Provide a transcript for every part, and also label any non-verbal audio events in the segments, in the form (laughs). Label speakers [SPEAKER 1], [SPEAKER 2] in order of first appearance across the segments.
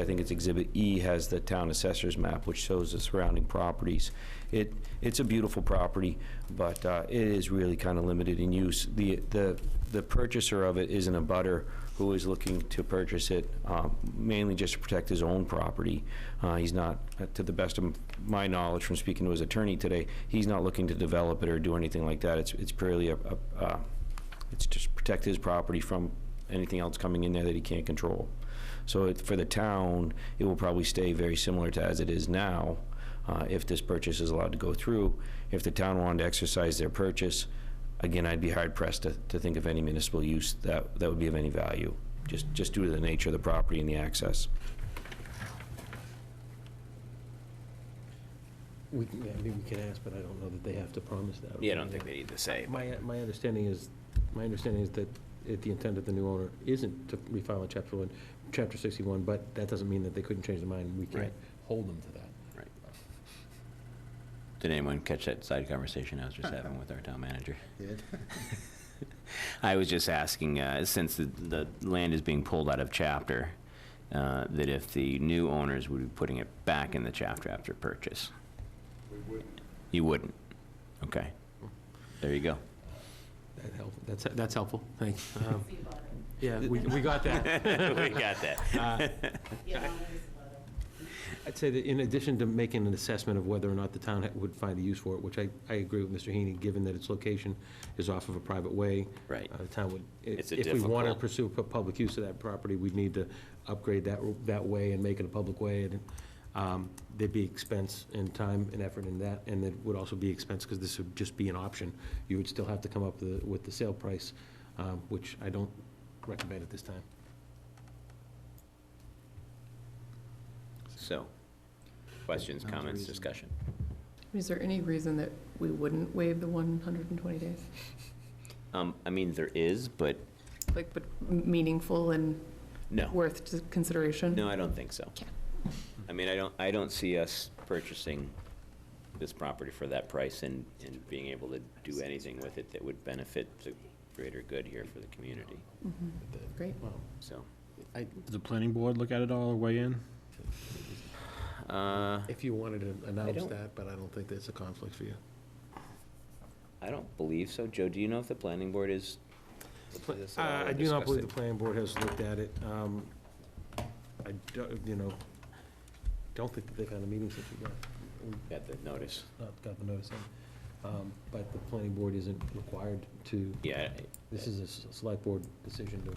[SPEAKER 1] I think it's Exhibit E has the town assessor's map, which shows the surrounding properties. It, it's a beautiful property, but uh, it is really kind of limited in use. The, the, the purchaser of it isn't a butter who is looking to purchase it um, mainly just to protect his own property. Uh, He's not, uh, to the best of my knowledge from speaking to his attorney today, he's not looking to develop it or do anything like that. It's, it's purely a, a, uh, it's just protect his property from anything else coming in there that he can't control. So it- for the town, it will probably stay very similar to as it is now, uh, if this purchase is allowed to go through. If the town wanted to exercise their purchase, again, I'd be hard pressed to, to think of any municipal use that, that would be of any value, just, just due to the nature of the property and the access.
[SPEAKER 2] We, can- yeah, I mean, we can ask, but I don't know that they have to promise that.
[SPEAKER 3] Yeah, I don't think they need to say. but-
[SPEAKER 2] My, my understanding is, my understanding is that it- the intent of the new owner isn't to refile in chapter one, chapter sixty-one, but that doesn't mean that they couldn't change their mind, and we
[SPEAKER 3] Right.
[SPEAKER 2] can't hold them to that.
[SPEAKER 4] Did anyone catch that side conversation I was just having with our town manager? (laughs) I was just asking, uh, since the, the land is being pulled out of chapter, uh, that if the new owners would be putting it back in the chapter after purchase? We wouldn't. You wouldn't? Okay. There (laughs) you go.
[SPEAKER 2] That help, that's, that's helpful, thanks. Um, Yeah, we, we got
[SPEAKER 3] (laughs)
[SPEAKER 2] that.
[SPEAKER 4] We got that.
[SPEAKER 2] I'd say that in addition to making an assessment of whether or not the town ha- would find a use for it, which I, I agree with Mr. Heaney, given that its location is off of a private way.
[SPEAKER 4] Right.
[SPEAKER 2] uh, The town would, i-
[SPEAKER 4] It's a
[SPEAKER 2] if we want to
[SPEAKER 4] difficult-
[SPEAKER 2] pursue pu- public use of that property, we'd need to upgrade that, ro- that way and make it a public way. and um, There'd be expense and time and effort in that, and it would also be expense because this would just be an option. You would still have to come up with, the- with the sale price, um, which I don't recommend at this time.
[SPEAKER 4] So, questions, comments, discussion?
[SPEAKER 5] Is there any reason that we wouldn't waive the 120 days?
[SPEAKER 4] Um, I mean, there is, but
[SPEAKER 5] Like, but meaningful and
[SPEAKER 4] no.
[SPEAKER 5] worth to consideration?
[SPEAKER 4] No, I don't think so.
[SPEAKER 5] Okay.
[SPEAKER 4] I mean, I don't, I don't see us purchasing this property for that price and, and being able to do anything with it that would benefit the greater good here for the community,
[SPEAKER 5] Mhm. Great.
[SPEAKER 4] so.
[SPEAKER 6] Does the planning board look at it all or weigh in?
[SPEAKER 4] uh,
[SPEAKER 2] If you wanted to
[SPEAKER 4] don't-
[SPEAKER 2] that, but I don't think that's a conflict for you.
[SPEAKER 4] I don't believe so. Joe, do you know if the planning board is?
[SPEAKER 2] Uh, I do not believe the planning board has looked at it. Um, I don't, you know, don't think that they've had a meeting since we got, we
[SPEAKER 4] Got the notice.
[SPEAKER 2] not got the notice in. Um, But the planning board isn't required to,
[SPEAKER 4] Yeah,
[SPEAKER 2] this is a s- select board decision to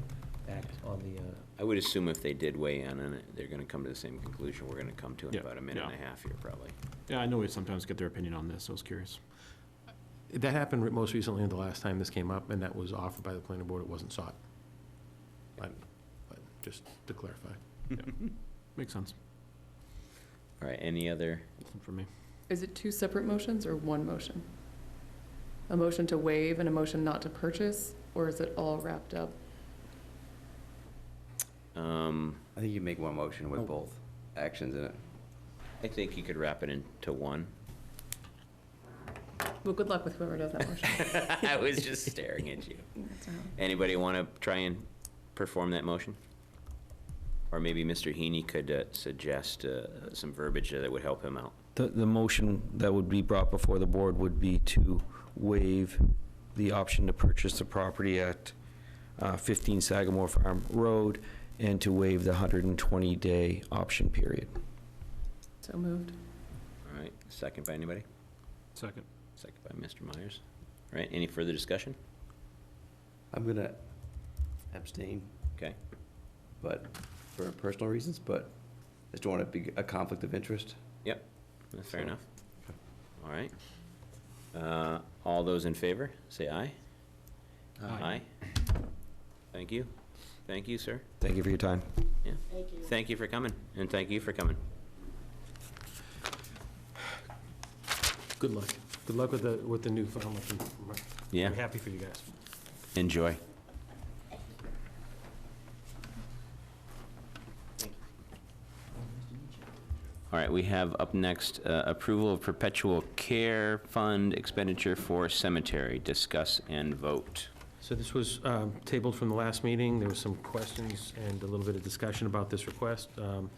[SPEAKER 2] act on the, uh,
[SPEAKER 4] I would assume if they did weigh in on it, they're gonna come to the same conclusion we're gonna come to in
[SPEAKER 6] Yeah,
[SPEAKER 4] about a minute and a
[SPEAKER 6] yeah.
[SPEAKER 4] half here, probably.
[SPEAKER 6] Yeah, I know we sometimes get their opinion on this, so I was curious.
[SPEAKER 2] that happened re- most recently, the last time this came up, and that was offered by the planning board, it wasn't sought. But, but just to clarify.
[SPEAKER 6] Makes sense
[SPEAKER 4] All right, any other?
[SPEAKER 6] for me.
[SPEAKER 5] Is it two separate motions or one motion? A motion to waive and a motion not to purchase, or is it all wrapped up?
[SPEAKER 4] Um, Oh.
[SPEAKER 3] I think you make one motion with both actions in it.
[SPEAKER 4] I think you could wrap it into
[SPEAKER 3] (laughs)
[SPEAKER 4] one.
[SPEAKER 5] Well, good luck with whoever does
[SPEAKER 4] (laughs)
[SPEAKER 5] that motion.
[SPEAKER 4] I was just staring at you.
[SPEAKER 5] That's all.
[SPEAKER 4] Anybody want to try and perform that motion? Or maybe Mr. Heaney could uh, suggest uh, some verbiage that would help him out.
[SPEAKER 1] The, the motion that would be brought before the board would be to waive the option to purchase the property at uh, 15 Sagamore Farm Road and to waive the 120-day option period.
[SPEAKER 5] So moved.
[SPEAKER 4] All right, second by anybody?
[SPEAKER 6] Second.
[SPEAKER 4] Second by Mr. Myers. All right, any further discussion?
[SPEAKER 3] I'm gonna abstain,
[SPEAKER 4] Okay,
[SPEAKER 3] but for personal reasons, but I just don't want to be a conflict of interest.
[SPEAKER 4] that's fair enough. All right. Uh, All those in favor, say aye. Aye. Thank you. Thank you, sir.
[SPEAKER 1] Thank you for your time.
[SPEAKER 4] Thank you for coming, and thank you for coming.
[SPEAKER 2] Good luck. Good luck with the, with the new farm.
[SPEAKER 4] Yeah.
[SPEAKER 2] We're happy for you guys.
[SPEAKER 4] Enjoy. All right, we have up next, uh, approval of perpetual care fund expenditure for cemetery. Discuss and vote.
[SPEAKER 2] So this was um, tabled from the last meeting. There were some questions and a little bit of discussion about this request. Um,